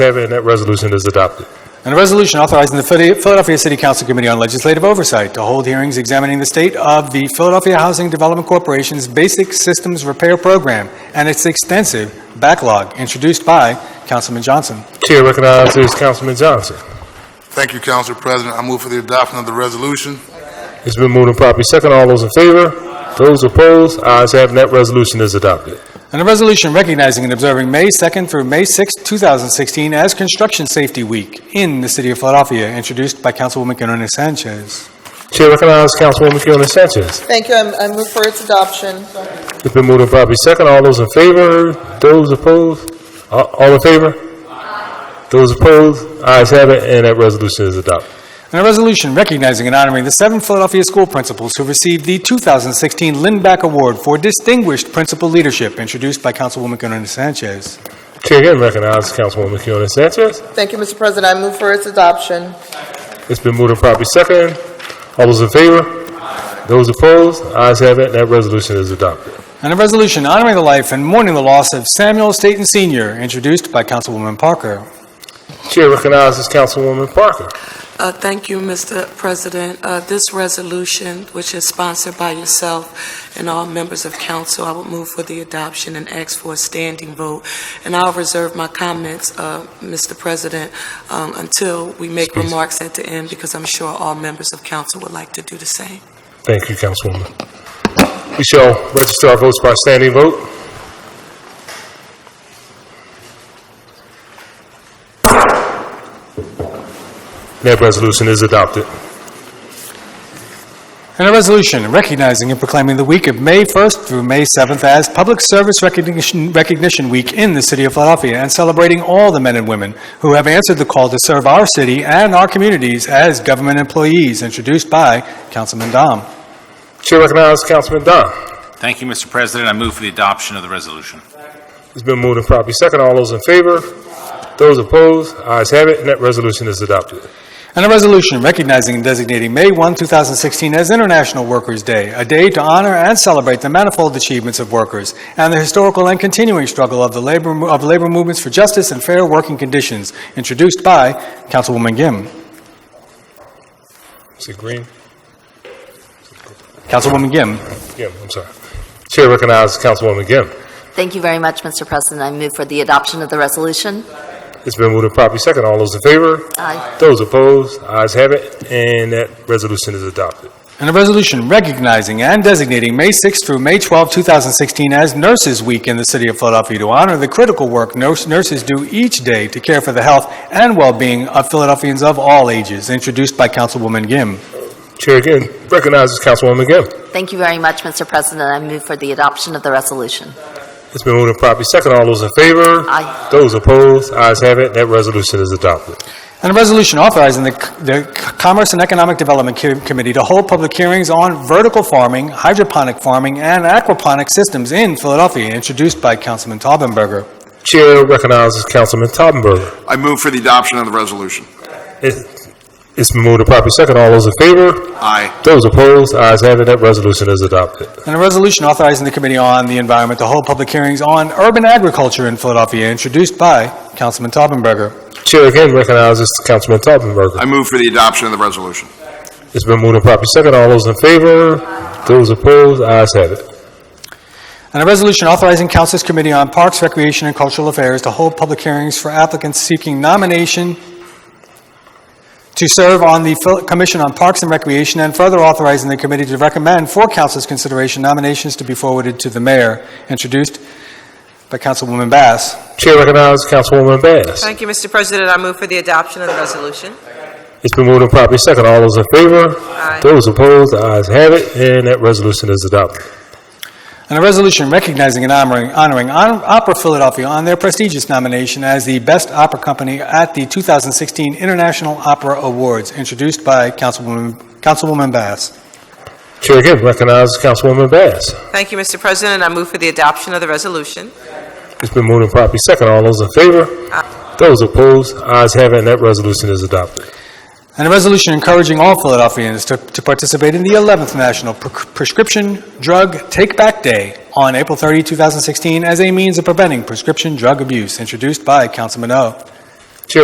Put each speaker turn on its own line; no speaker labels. have it, and that resolution is adopted.
And a resolution authorizing the Phila- Philadelphia City Council Committee on Legislative Oversight to hold hearings examining the state of the Philadelphia Housing Development Corporation's Basic Systems Repair Program and its extensive backlog, introduced by Councilman Johnson.
Chair recognizes Councilman Johnson.
Thank you, Council President. I move for the adoption of the resolution.
It's been moved and properly second. All those in favor? Those opposed? Ayes have, it, and that resolution is adopted.
And a resolution recognizing and observing May 2nd through May 6th, 2016 as Construction Safety Week in the city of Philadelphia, introduced by Councilwoman Gunnarina Sanchez.
Chair recognizes Councilwoman Fiona Sanchez.
Thank you. I I move for its adoption.
It's been moved and properly second. All those in favor? Those opposed? A- All in favor? Those opposed? Ayes have, it, and that resolution is adopted.
And a resolution recognizing and honoring the seven Philadelphia school principals who received the 2016 Lindback Award for Distinguished Principal Leadership, introduced by Councilwoman Gunnarina Sanchez.
Chair again recognizes Councilwoman Fiona Sanchez.
Thank you, Mr. President. I move for its adoption.
It's been moved and properly second. All those in favor? Those opposed? Ayes have, it, and that resolution is adopted.
And a resolution honoring the life and mourning the loss of Samuel Staton Sr., introduced by Councilwoman Parker.
Chair recognizes Councilwoman Parker.
Uh, Thank you, Mr. President. Uh, This resolution, which is sponsored by yourself and all members of council, I would move for the adoption and ask for a standing vote. And I'll reserve my comments, uh, Mr. President, um, until we make
Excuse-
remarks at the end, because I'm sure all members of council would like to do the same.
Thank you, Councilwoman. We shall register our votes by standing vote. That resolution is adopted.
And a resolution recognizing and proclaiming the week of May 1st through May 7th as Public Service Recognition Recognition Week in the city of Philadelphia, and celebrating all the men and women who have answered the call to serve our city and our communities as government employees, introduced by Councilman Dom.
Chair recognizes Councilman Dunn.
Thank you, Mr. President. I move for the adoption of the resolution.
It's been moved and properly second. All those in favor? Those opposed? Ayes have it, and that resolution is adopted.
And a resolution recognizing and designating May 1, 2016 as International Workers' Day, a day to honor and celebrate the manifold achievements of workers and the historical and continuing struggle of the labor, of labor movements for justice and fair working conditions, introduced by Councilwoman Gimm.
Is it green?
Councilwoman Gimm.
Yeah, I'm sorry. Chair recognizes Councilwoman Gimm.
Thank you very much, Mr. President. I move for the adoption of the resolution.
It's been moved and properly second. All those in favor?
Aye.
Those opposed? Ayes have it, and that resolution is adopted.
And a resolution recognizing and designating May 6 through May 12, 2016 as Nurses Week in the City of Philadelphia to honor the critical work nurse- nurses do each day to care for the health and well-being of Philadelphians of all ages, introduced by Councilwoman Gimm.
Chair again recognizes Councilwoman Gill.
Thank you very much, Mr. President. I move for the adoption of the resolution.
It's been moved and properly second. All those in favor?
Aye.
Those opposed? Ayes have it. That resolution is adopted.
And a resolution authorizing the the Commerce and Economic Development Com- Committee to hold public hearings on vertical farming, hydroponic farming, and aquaponic systems in Philadelphia, introduced by Councilman Taubenberger.
Chair recognizes Councilman Tottenberg.
I move for the adoption of the resolution.
It- It's been moved and properly second. All those in favor?
Aye.
Those opposed? Ayes have it. That resolution is adopted.
And a resolution authorizing the Committee on the Environment to hold public hearings on urban agriculture in Philadelphia, introduced by Councilman Taubenberger.
Chair again recognizes Councilman Tottenberg.
I move for the adoption of the resolution.
It's been moved and properly second. All those in favor? Those opposed? Ayes have it.
And a resolution authorizing Council's Committee on Parks, Recreation, and Cultural Affairs to hold public hearings for applicants seeking nomination to serve on the Phil- Commission on Parks and Recreation, and further authorizing the committee to recommend for Council's consideration nominations to be forwarded to the mayor, introduced by Councilwoman Bass.
Chair recognizes Councilwoman Bass.
Thank you, Mr. President. I move for the adoption of the resolution.
It's been moved and properly second. All those in favor?
Aye.
Those opposed? Ayes have it. And that resolution is adopted.
And a resolution recognizing and honoring, honoring Hon- Opera Philadelphia on their prestigious nomination as the Best Opera Company at the 2016 International Opera Awards, introduced by Councilwoman, Councilwoman Bass.
Chair again recognizes Councilwoman Bass.
Thank you, Mr. President. I move for the adoption of the resolution.
It's been moved and properly second. All those in favor? Those opposed? Ayes have it, and that resolution is adopted.
And a resolution encouraging all Philadelphians to, to participate in the 11th National Pre- Prescription Drug Take Back Day on April 30, 2016, as a means of preventing prescription drug abuse, introduced by Councilman O.